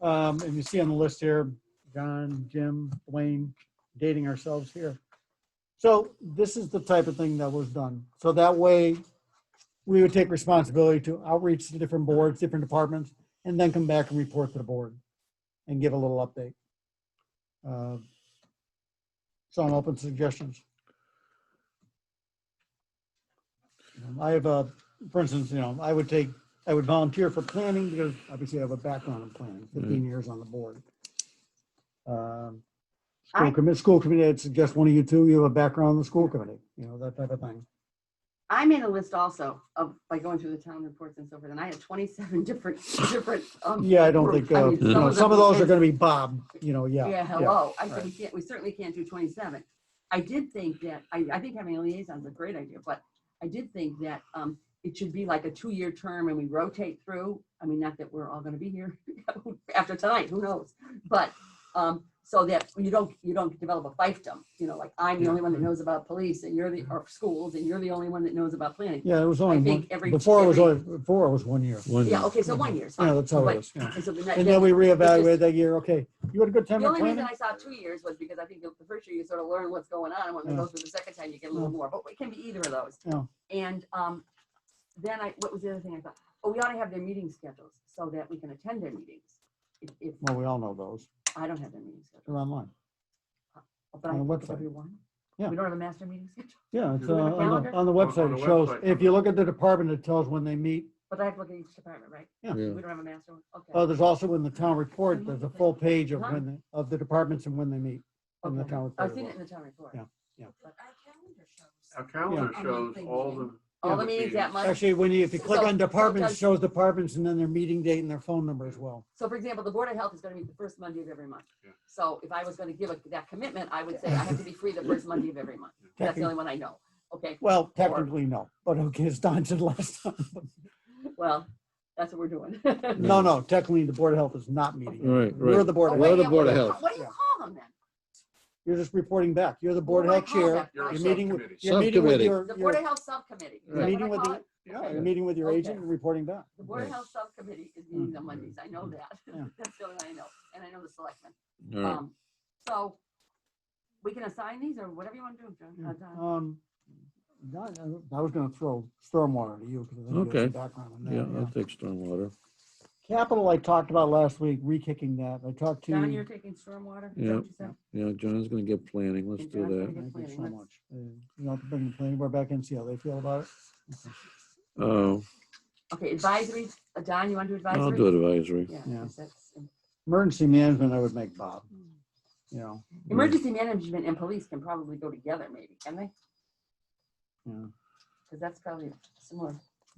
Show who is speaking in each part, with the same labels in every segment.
Speaker 1: Um, and you see on the list here, John, Jim, Blaine, dating ourselves here. So this is the type of thing that was done. So that way, we would take responsibility to outreach to different boards, different departments, and then come back and report to the board and give a little update. Uh, So I'm open to suggestions. Um, I have a, for instance, you know, I would take, I would volunteer for planning because obviously I have a background in planning, fifteen years on the board. Um, School
Speaker 2: I-
Speaker 1: committee, school committee, I'd suggest one of you two, you have a background in the school committee, you know, that type of thing.
Speaker 2: I made a list also of, by going through the town reports and so forth, and I had twenty-seven different, different. um,
Speaker 1: Yeah, I don't
Speaker 2: groups.
Speaker 1: think,
Speaker 2: I
Speaker 1: uh,
Speaker 2: mean,
Speaker 1: you know,
Speaker 2: them
Speaker 1: some of those are
Speaker 2: is-
Speaker 1: gonna be Bob, you know, yeah.
Speaker 2: Yeah, hello. I said,
Speaker 1: right.
Speaker 2: we can't, we certainly can't do twenty-seven. I did think that, I, I think having a liaison is a great idea, but I did think that, um, it should be like a two-year term and we rotate through. I mean, not that we're all gonna be here after tonight, who knows? But, um, so that you don't, you don't develop a fiefdom, you know, like I'm the only one that knows about police and you're the, or schools, and you're the only one that knows about planning.
Speaker 1: Yeah, it was only,
Speaker 2: I think
Speaker 1: one-
Speaker 2: every-
Speaker 1: before it was
Speaker 2: every-
Speaker 1: only, before it was one year.
Speaker 3: One,
Speaker 2: Yeah, okay, so one year is fine.
Speaker 1: Yeah, that's how
Speaker 2: But-
Speaker 1: it is. yeah.
Speaker 2: and so the ne-
Speaker 1: And then we reevaluate
Speaker 2: just-
Speaker 1: that year, okay, you had a good time
Speaker 2: The
Speaker 1: at
Speaker 2: only reason
Speaker 1: planning?
Speaker 2: I saw two years was because I think the the first year you sort of learn what's going on, and when it
Speaker 1: Yeah.
Speaker 2: goes through the second time, you get a little more, but it can be either of those.
Speaker 1: Yeah.
Speaker 2: And, um, then I, what was the other thing I thought? Oh, we ought to have their meeting schedules so that we can attend their meetings. If, if,
Speaker 1: Well, we all know those,
Speaker 2: I don't have their meeting schedule,
Speaker 1: they're online.
Speaker 2: but I
Speaker 1: On the
Speaker 2: can look at
Speaker 1: website.
Speaker 2: everyone.
Speaker 1: Yeah.
Speaker 2: We don't have a master meeting schedule,
Speaker 1: Yeah, it's
Speaker 4: Is it
Speaker 1: uh,
Speaker 4: in the
Speaker 1: on the,
Speaker 2: calendar?
Speaker 1: on the website,
Speaker 4: on
Speaker 1: it
Speaker 4: the
Speaker 1: shows,
Speaker 4: website.
Speaker 1: if you look at the department, it tells when they meet.
Speaker 2: but I have to look at each department, right?
Speaker 3: yeah.
Speaker 2: We don't have a master one,
Speaker 1: Oh,
Speaker 2: okay.
Speaker 1: there's also in the town report, there's a full page of
Speaker 2: Huh?
Speaker 1: when, the- of the departments and when they meet. in the
Speaker 2: okay.
Speaker 1: town
Speaker 2: I've
Speaker 1: report
Speaker 2: seen
Speaker 1: as
Speaker 2: it in the town report.
Speaker 1: Yeah, yeah.
Speaker 2: But our calendar shows
Speaker 4: Our calendar
Speaker 2: Yeah. Oh,
Speaker 4: shows all the.
Speaker 2: All the meetings that month.
Speaker 1: Actually, when you, if you click
Speaker 2: So-
Speaker 1: on
Speaker 2: so it
Speaker 1: departments, it
Speaker 2: does-
Speaker 1: shows departments and then their meeting date and their phone number as well.
Speaker 2: So for example, the Board of Health is gonna meet the first Monday of every month.
Speaker 4: Yeah.
Speaker 2: So if I was gonna give a- that commitment, I would say I have to be free the first Monday of every month. That's the
Speaker 1: Technically-
Speaker 2: only one I know. Okay,
Speaker 1: Well, technically, no, but okay, as Don said last time.
Speaker 2: well, that's what we're doing.
Speaker 1: No, no, technically, the Board of Health is not meeting.
Speaker 3: Right,
Speaker 1: We're
Speaker 3: right.
Speaker 1: the Board
Speaker 2: Oh,
Speaker 1: of
Speaker 2: wait,
Speaker 1: Health.
Speaker 3: We're the
Speaker 2: yeah,
Speaker 3: Board of
Speaker 2: what do you
Speaker 3: Health.
Speaker 2: call- What do you
Speaker 1: Yeah.
Speaker 2: call them then?
Speaker 1: You're just reporting back. You're the Board of
Speaker 2: What do
Speaker 1: Health
Speaker 2: I call
Speaker 1: Chair.
Speaker 2: that?
Speaker 4: You're a
Speaker 1: You're meeting with,
Speaker 4: subcommittee.
Speaker 1: you're meeting with
Speaker 3: Subcommittee.
Speaker 1: your,
Speaker 2: The Board
Speaker 1: your-
Speaker 2: of Health Subcommittee. Is
Speaker 3: Right.
Speaker 2: that
Speaker 1: meeting
Speaker 2: what I
Speaker 1: with
Speaker 2: call
Speaker 1: the,
Speaker 2: it?
Speaker 1: yeah,
Speaker 2: Okay.
Speaker 1: you're meeting with your
Speaker 2: Okay.
Speaker 1: agent and reporting back.
Speaker 2: The Board of
Speaker 3: Right.
Speaker 2: Health Subcommittee is meeting on Mondays. I know that.
Speaker 1: Mm-hmm. Yeah.
Speaker 2: That's the only one I know. And I know the selectmen.
Speaker 3: All right.
Speaker 2: Um, So we can assign these or whatever you want to do. John- uh, Don.
Speaker 1: Um, no, I I was gonna throw stormwater to you. 'cause I think you have
Speaker 3: Okay.
Speaker 1: some background in that,
Speaker 3: Yeah,
Speaker 1: yeah.
Speaker 3: I'll take stormwater.
Speaker 1: Capital, I talked about last week, re-kicking that. I talked to.
Speaker 2: Don, you're taking stormwater? Is that
Speaker 3: Yeah.
Speaker 2: what you said?
Speaker 3: Yeah, John's gonna get planning. Let's
Speaker 2: And
Speaker 3: do
Speaker 2: John's gonna
Speaker 3: that.
Speaker 1: Thank you so
Speaker 2: Let's-
Speaker 1: much. Uh, You know, bring the planning board back in, see how they feel about it.
Speaker 3: Oh,
Speaker 2: Okay, advisory, Uh, Don, you want to do advisory?
Speaker 3: I'll do advisory.
Speaker 2: Yeah,
Speaker 1: Yeah.
Speaker 2: yes, that's-
Speaker 1: Emergency management, I would make Bob,
Speaker 2: Hmm.
Speaker 1: you know.
Speaker 2: Emergency management and police can probably go together maybe, can they?
Speaker 1: Yeah.
Speaker 2: Because that's probably similar.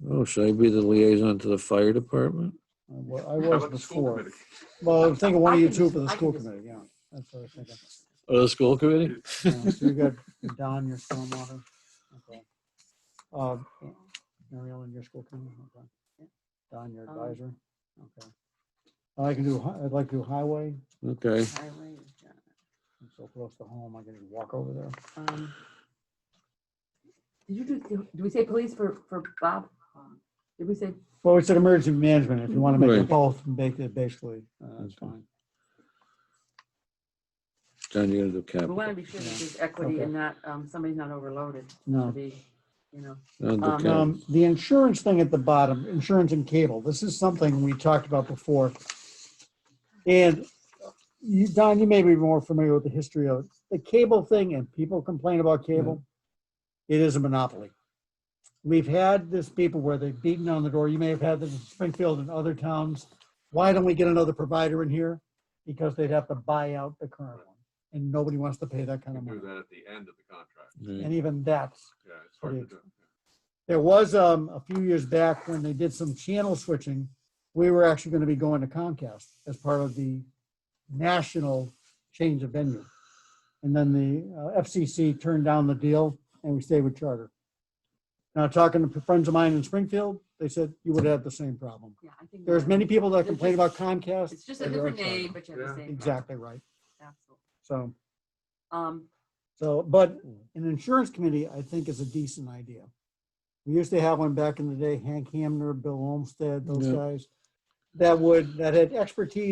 Speaker 3: Oh, should I be the liaison to the fire department?
Speaker 1: I wa- Uh, I
Speaker 4: How
Speaker 1: was
Speaker 4: about the school
Speaker 1: before.
Speaker 4: committee?
Speaker 1: Well, I was thinking one
Speaker 2: I
Speaker 1: of you
Speaker 2: can
Speaker 1: two
Speaker 2: just-
Speaker 1: for the
Speaker 2: I can
Speaker 1: school
Speaker 2: just-
Speaker 1: committee, yeah. That's what I was thinking.
Speaker 3: Oh, the school committee?
Speaker 1: Yeah, So you got Don, your stormwater. Okay. Uh, Mariel, and your school committee. okay. Don, your
Speaker 2: Um,
Speaker 1: advisor. Okay. I can do, hi- I'd like to do highway.
Speaker 3: Okay,
Speaker 2: highway, uh,
Speaker 1: I'm so close to home. I can just walk over there.
Speaker 2: um, Did you do, do we say police for, for Bob? Did we say,
Speaker 1: Well, it's an emergency management. If you want to make it
Speaker 3: Right.
Speaker 1: both, make it basically, uh, that's
Speaker 3: Okay.
Speaker 1: fine.
Speaker 3: John, you're gonna do
Speaker 2: we want to
Speaker 3: capital.
Speaker 2: be sure that
Speaker 1: Yeah.
Speaker 2: there's equity
Speaker 1: Okay.
Speaker 2: and not, um, somebody's not overloaded to
Speaker 1: No.
Speaker 2: be, you know.
Speaker 3: I'll do
Speaker 2: Um,
Speaker 3: capital.
Speaker 1: Um, the insurance thing at the bottom, insurance and cable, this is something we talked about before. And you, Don, you may be more familiar with the history of it. the cable thing and people complain about cable. It is a monopoly. We've had this people where they've beaten on the door. You may have had this in Springfield and other towns. Why don't we get another provider in here? Because they'd have to buy out the current one and nobody wants to pay that
Speaker 4: You
Speaker 1: kind of
Speaker 4: can
Speaker 1: money.
Speaker 4: do that at the end of the contract.
Speaker 3: Right.
Speaker 1: And even that's
Speaker 4: Yeah, it's hard to do.
Speaker 1: there was um, a few years back when they did some channel switching, we were actually going to be going to Comcast as part of the national change of venue. And then the uh, FCC turned down the deal and we stayed with Charter. Now, talking to friends of mine in Springfield, they said you would have had the same problem.
Speaker 2: Yeah, I think.
Speaker 1: There's many people that complain about
Speaker 2: It's
Speaker 1: Comcast.
Speaker 2: just a
Speaker 1: or
Speaker 2: different
Speaker 1: Charter.
Speaker 2: name, but you have the
Speaker 4: Yeah.
Speaker 2: same.
Speaker 1: Exactly right.
Speaker 2: Absolutely.
Speaker 1: So,
Speaker 2: Um,
Speaker 1: so, but an insurance committee, I think, is a decent idea. We used to have one back in the day, Hank Hamner, Bill Olmsted, those
Speaker 3: Yeah.
Speaker 1: guys, that would, that had expertise